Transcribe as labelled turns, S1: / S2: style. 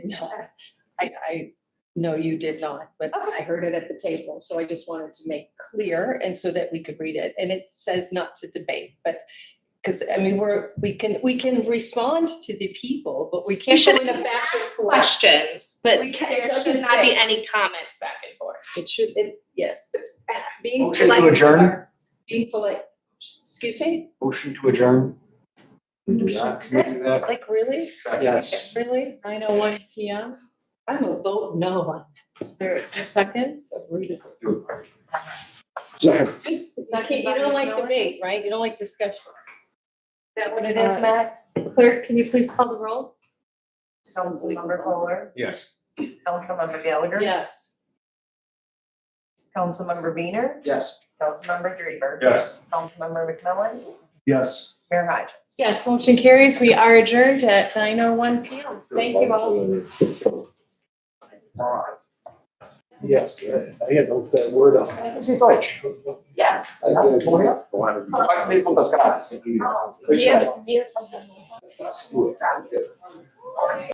S1: not. I, I know you did not, but I heard it at the table, so I just wanted to make clear and so that we could read it. And it says not to debate, but, because, I mean, we're, we can, we can respond to the people, but we can't go
S2: should
S1: in a back and forth.
S2: questions, but
S1: We can't- it
S2: there
S1: doesn't
S2: should not be
S1: say.
S2: any comments back and forth.
S1: It should, it, yes, but being.
S3: Motion to
S1: polite-
S3: adjourn?
S1: Being polite, excuse me?
S3: Motion to adjourn. We do that. We do that.
S1: Like, really?
S3: Yes.
S1: Really?
S4: Nine oh one P M,
S1: I'm a vote no.
S4: there, a second?
S3: Second.
S1: Just, you don't like debate, right? You don't like discussion. Is that what it is,
S4: Uh,
S1: Max?
S4: Clerk, can you please call the roll?
S5: Councilmember Kohler,
S3: Yes.
S5: Councilmember Gallagher,
S4: Yes.
S5: Councilmember Weiner,
S3: Yes.
S5: Councilmember Drever,
S3: Yes.
S5: Councilmember McMillan,
S3: Yes.
S5: Mayor Hodges.
S4: Yes, motion carries. We are adjourned at nine oh one P M. Thank you all.
S6: Yes, I I had to look that word up.
S4: Yeah.
S6: I did.
S3: Oh, Pode vir com as caras.
S6: Good job.
S4: Yeah.
S6: Let's do it.